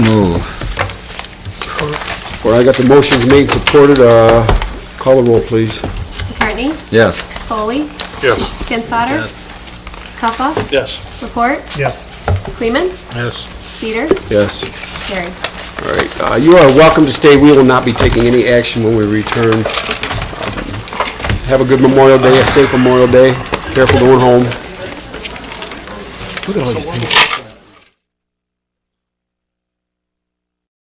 All right, I got the motions made, supported, uh, call the roll, please. McCartney, Yes. Foley, Yes. Kinsfater, Cuffa, Yes. Report, Yes. Kleeman, Yes. Peter, Yes. carried. All right, uh, you are welcome to stay, we will not be taking any action when we return. Um, Have a good Memorial Day, a safe Memorial Day, careful going home. Look at all these people.